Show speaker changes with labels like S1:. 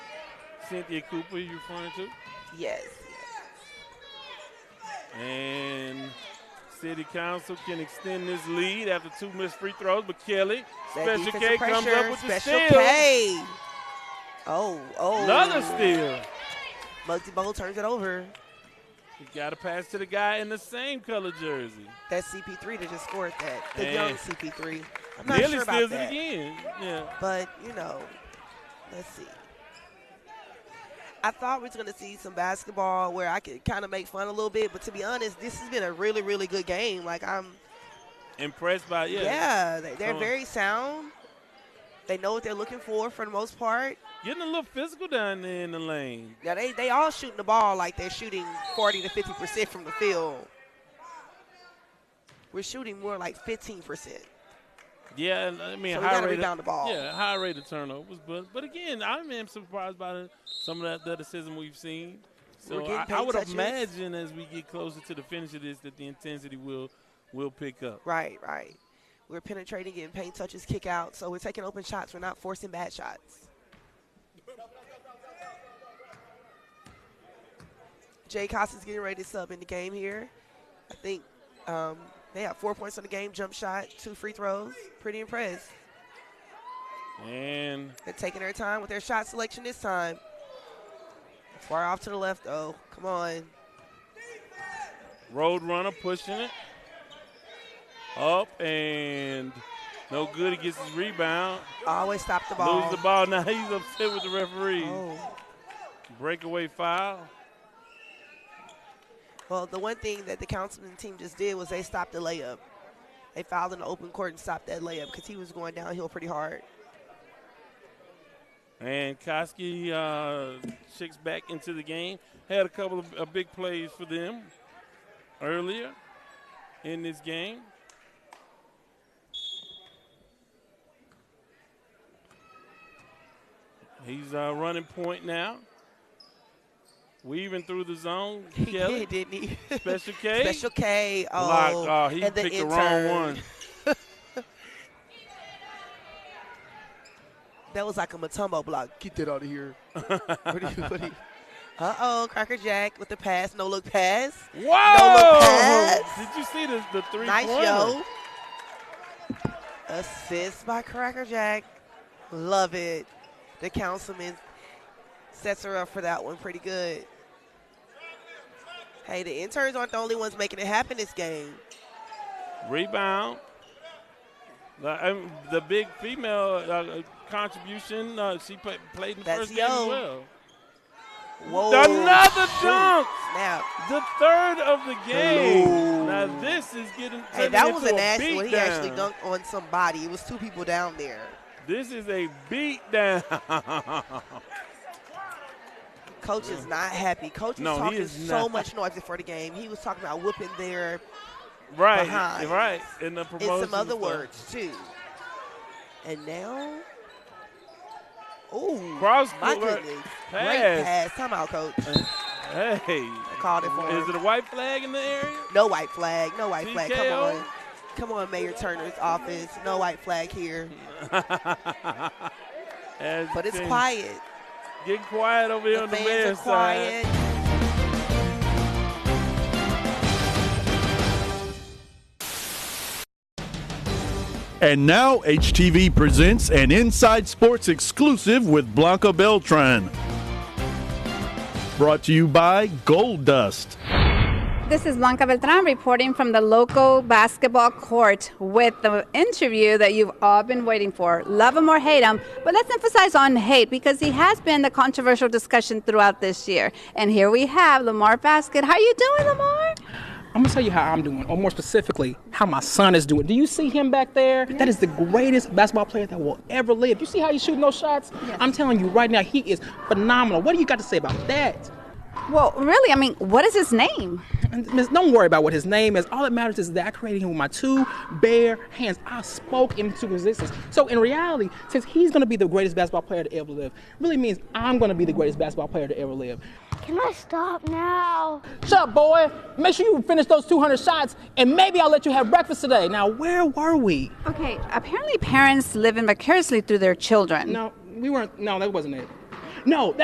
S1: Cynthia Cooper you referring to?
S2: Yes.
S1: And City Council can extend this lead after two missed free throws, but Kelly,
S2: That
S1: Special
S2: defensive
S1: K comes
S2: pressure,
S1: up with the
S2: Special
S1: steal.
S2: K. Oh, oh.
S1: Another steal.
S2: Muggsy Bowl turns it over.
S1: You got to pass to the guy in the same color jersey.
S2: That's CP3 that just scored that. The
S1: Man.
S2: young CP3. I'm not
S1: Nearly
S2: sure about
S1: steals
S2: that.
S1: it again. Yeah.
S2: But, you know, let's see. I thought we was going to see some basketball where I could kind of make fun a little bit, but to be honest, this has been a really, really good game. Like, I'm,
S1: Impressed by yeah.
S2: yeah, they, they're
S1: Come on.
S2: very sound. They know what they're looking for for the most part.
S1: Getting a little physical down there in the lane.
S2: Now, they, they all shooting the ball like they're shooting 40 to 50% from the field. We're shooting more like 15%.
S1: Yeah, and, I mean
S2: So we
S1: high
S2: gotta
S1: rate.
S2: rebound
S1: Of,
S2: the ball.
S1: yeah, high rate of turnovers, but but again, I am surprised by the, some of the athleticism we've seen.
S2: We're
S1: So
S2: getting
S1: I, I
S2: paint
S1: would
S2: touches.
S1: imagine as we get closer to the finish of this that the intensity will will pick up.
S2: Right, right. We're penetrating, getting paint touches, kick out. So we're taking open shots. We're not forcing bad shots. Jay Costa's getting ready to sub in the game here. I think um, they have four points on the game, jump shot, two free throws. Pretty impressed.
S1: And
S2: They're taking their time with their shot selection this time. Far off to the left, though. Come on.
S1: Roadrunner pushing it up and no good. He gets his rebound,
S2: Always stop the ball.
S1: loses the ball. Now he's upset with the referee.
S2: Oh.
S1: Breakaway foul.
S2: Well, the one thing that the councilman team just did was they stopped the layup. They fouled in the open court and stopped that layup because he was going downhill pretty hard.
S1: And Koski uh, checks back into the game. Had a couple of uh, big plays for them earlier in this game. He's uh, running point now. Weaving through the zone.
S2: He
S1: Kelly,
S2: did, didn't he?
S1: Special K.
S2: Special K. Oh,
S1: Block. Oh, he
S2: and the
S1: picked the
S2: intern.
S1: wrong one.
S2: That was like a Matumbo block. Get that out of here. what do you, what do you? Uh-oh, Cracker Jack with the pass, no look pass.
S1: Whoa!
S2: pass.
S1: Did you see the, the three
S2: Nice yo. Assist by Cracker Jack. Love it. The councilman sets her up for that one pretty good. Hey, the interns aren't the only ones making it happen this game.
S1: Rebound. The, um, the big female uh, contribution, uh, she play, played in the
S2: That's
S1: first game as
S2: Yo.
S1: well.
S2: Whoa.
S1: Another
S2: Shoot.
S1: dunk.
S2: Snap.
S1: The third of the game.
S2: Hello.
S1: Now this is getting
S2: Hey,
S1: turning
S2: that was
S1: into
S2: a
S1: a
S2: nasty one. He actually
S1: beatdown.
S2: dunked on somebody. It was two people down there.
S1: This is a beatdown.
S2: Coach is not happy. Coach was
S1: No, he
S2: talking
S1: is
S2: so
S1: not.
S2: much noise before the game. He was talking about whooping their
S1: right,
S2: Behind.
S1: right. In the
S2: in
S1: promotion,
S2: some other
S1: stuff.
S2: words too. And now, oh
S1: Cross
S2: my
S1: court
S2: goodness, great
S1: pass.
S2: pass! Timeout, coach.
S1: Hey,
S2: I called it for
S1: is it
S2: him.
S1: a white flag in the area?
S2: no white flag, no white flag. Come
S1: TKO?
S2: on, come on, Mayor Turner's office. No white flag here,
S1: As
S2: but it's
S1: things
S2: quiet.
S1: Get quiet over here
S2: The
S1: on the
S2: fans
S1: mayor's
S2: are
S1: side.
S2: quiet.
S3: And now HTV presents an Inside Sports exclusive with Blanca Beltran. Brought to you by Gold Dust.
S4: This is Blanca Beltran reporting from the local basketball court with the interview that you've all been waiting for. Love him or hate him, but let's emphasize on hate because he has been the controversial discussion throughout this year. And here we have Lamar Basket. How you doing, Lamar?
S5: I'm gonna tell you how I'm doing, or more specifically, how my son is doing. Do you see him back there? That is the greatest basketball player that will ever live. You see how he's shooting those shots? I'm telling you right now, he is phenomenal. What do you got to say about that?
S4: Well, really, I mean, what is his name?
S5: And miss, don't worry about what his name is. All that matters is that I created him with my two bare hands. I spoke him into existence. So in reality, since he's gonna be the greatest basketball player to ever live, really means I'm gonna be the greatest basketball player to ever live.
S6: Can I stop now?
S5: Shut up, boy. Make sure you finish those 200 shots, and maybe I'll let you have breakfast today. Now, where were we?
S4: Okay, apparently parents live in vicariously through their children.
S5: No, we weren't. No, that wasn't it. No, that